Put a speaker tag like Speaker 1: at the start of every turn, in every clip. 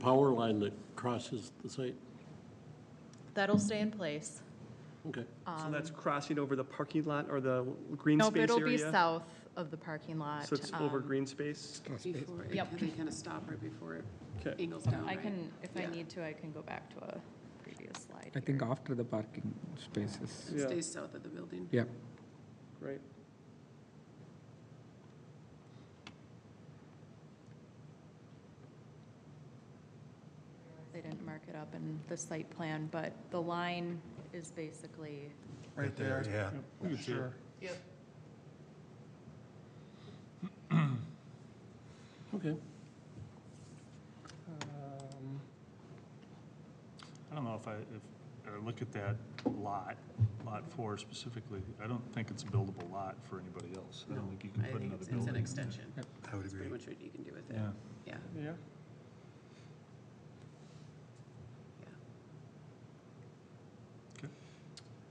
Speaker 1: power line that crosses the site?
Speaker 2: That'll stay in place.
Speaker 1: Okay.
Speaker 3: So that's crossing over the parking lot or the green
Speaker 2: Um, Nope,
Speaker 3: space
Speaker 2: it'll be
Speaker 3: area?
Speaker 2: south of the parking lot.
Speaker 3: So it's over
Speaker 2: um,
Speaker 3: green space?
Speaker 4: Before, it
Speaker 2: Yep.
Speaker 4: kind of, kind of stop right before it
Speaker 3: Okay.
Speaker 4: angles down,
Speaker 2: I
Speaker 4: right?
Speaker 2: can, if I
Speaker 4: Yeah.
Speaker 2: need to, I can go back to a previous slide.
Speaker 5: I think
Speaker 2: here.
Speaker 5: after the parking spaces.
Speaker 4: It
Speaker 3: Yeah.
Speaker 4: Stays south of the building.
Speaker 5: Yeah,
Speaker 3: Right.
Speaker 2: They didn't mark it up in the site plan, but the line is basically,
Speaker 6: Right there.
Speaker 7: Yeah.
Speaker 6: Yeah, Sure.
Speaker 1: Okay.
Speaker 6: Um,
Speaker 7: I don't know if I, if, I look at that lot, lot four specifically, I don't think it's a buildable lot for anybody else. I don't think you can
Speaker 4: I
Speaker 7: put
Speaker 4: think
Speaker 7: another
Speaker 4: it's, it's an
Speaker 7: building. in there.
Speaker 4: extension.
Speaker 7: I would
Speaker 4: That's pretty
Speaker 7: agree.
Speaker 4: much what you can do with it.
Speaker 7: Yeah,
Speaker 4: Yeah,
Speaker 3: Yeah.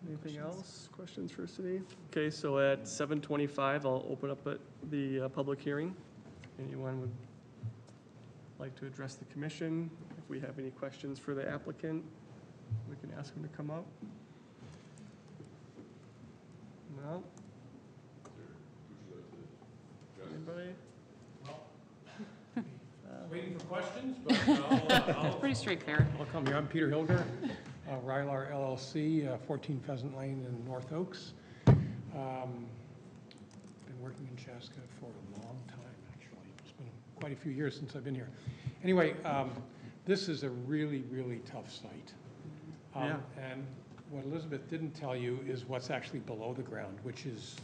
Speaker 4: yeah.
Speaker 3: Anything else? Questions for City? Okay, so at 7:25, I'll open up uh, the uh, public hearing. Anyone would like to address the commission? If we have any questions for the applicant, we can ask them to come up. No? Anybody?
Speaker 8: Waiting for questions, but I'll, I'll,
Speaker 4: Pretty straight there.
Speaker 8: I'll come here. I'm Peter Hilger, uh, Rylar LLC, uh, 14 Pheasant Lane in North Oaks. Um, Been working in Chaska for a long time, actually. It's been quite a few years since I've been here. Anyway, um, this is a really, really tough site. Um, And what Elizabeth didn't tell you is what's actually below the ground, which is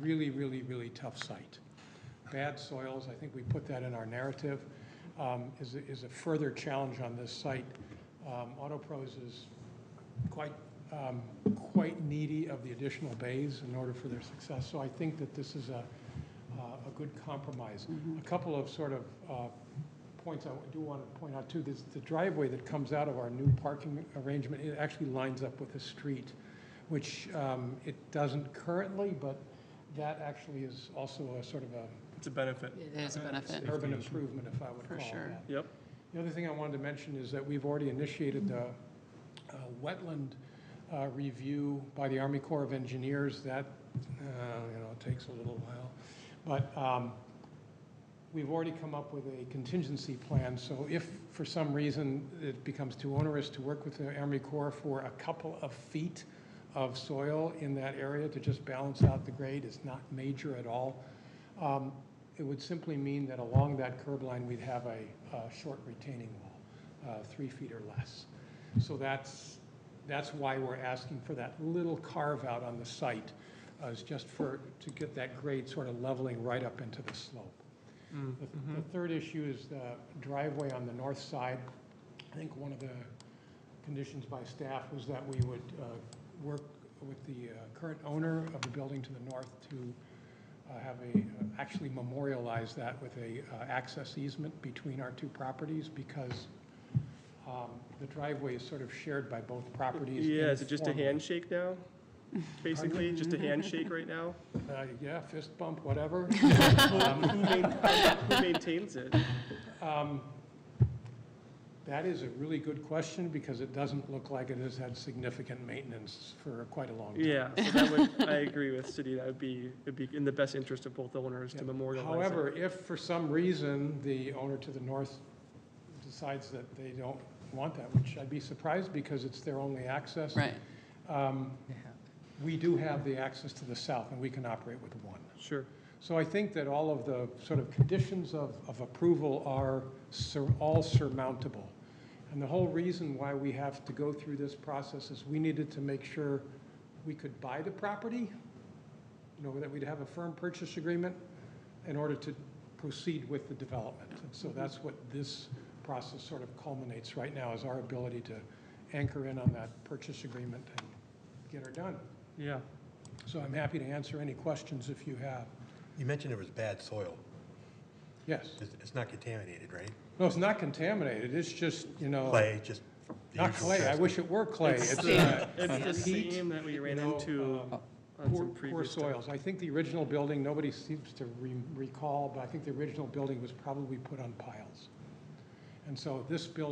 Speaker 8: really, really, really tough site. Bad soils, I think we put that in our narrative, um, is, a- is a further challenge on this site. Um, Autopros is quite, um, quite needy of the additional bays in order for their success. So I think that this is a, uh, a good compromise. A couple of sort of uh, points I do want to point out too, this, the driveway that comes out of our new parking arrangement, it actually lines up with the street, which um, it doesn't currently, but that actually is also a sort of a
Speaker 3: It's a benefit.
Speaker 4: It is a benefit,
Speaker 8: urban improvement, if I would
Speaker 4: For
Speaker 8: call it
Speaker 4: sure.
Speaker 8: that.
Speaker 3: Yep.
Speaker 8: The other thing I wanted to mention is that we've already initiated the uh, wetland uh, review by the Army Corps of Engineers. That, uh, you know, takes a little while. But um, we've already come up with a contingency plan. So if for some reason it becomes too onerous to work with the Army Corps for a couple of feet of soil in that area to just balance out the grade, it's not major at all. Um, It would simply mean that along that curb line, we'd have a, a short retaining wall, uh, three feet or less. So that's, that's why we're asking for that little carve-out on the site, uh, is just for, to get that grade sort of leveling right up into the slope.
Speaker 3: Mm-hmm.
Speaker 8: The- The third issue is the driveway on the north side. I think one of the conditions by staff was that we would uh, work with the uh, current owner of the building to the north to uh, have a, actually memorialize that with a uh, access easement between our two properties because um, the driveway is sort of shared by both properties.
Speaker 3: Yeah, is it just a
Speaker 8: informally.
Speaker 3: handshake now? Basically, just a handshake right now?
Speaker 8: Uh, Yeah, fist bump, whatever.
Speaker 3: Um, Who main- who maintains it?
Speaker 8: Um, That is a really good question because it doesn't look like it has had significant maintenance for quite a long time.
Speaker 3: Yeah, so that would, I agree with City, that would be, it'd be in the best interest of both owners
Speaker 8: Yeah.
Speaker 3: to memorialize it.
Speaker 8: However, if for some reason the owner to the north decides that they don't want that, which I'd be surprised because it's their only access.
Speaker 4: Right.
Speaker 8: um, We do have the access to the south and we can operate with one.
Speaker 3: Sure,
Speaker 8: So I think that all of the sort of conditions of, of approval are sur- all surmountable. And the whole reason why we have to go through this process is we needed to make sure we could buy the property, you know, that we'd have a firm purchase agreement in order to proceed with the development. And so that's what this process sort of culminates right now, is our ability to anchor in on that purchase agreement and get her done.
Speaker 3: yeah.
Speaker 8: So I'm happy to answer any questions if you have.
Speaker 9: You mentioned there was bad soil.
Speaker 8: Yes.
Speaker 9: It's it's not contaminated, right?
Speaker 8: No, it's not contaminated, it's just, you know.
Speaker 9: Clay, just. the
Speaker 8: Oh. Not
Speaker 9: usual
Speaker 8: clay, I
Speaker 9: stuff.
Speaker 8: wish it were clay. It's, uh,
Speaker 3: It's the
Speaker 8: heat,
Speaker 3: same that we
Speaker 8: you
Speaker 3: ran
Speaker 8: know,
Speaker 3: into
Speaker 8: um,
Speaker 3: on
Speaker 8: Poor,
Speaker 3: some
Speaker 8: poor
Speaker 3: previous.
Speaker 8: soils. I think the original building, nobody seems to re- recall, but I think the original building was probably put on piles. And so this building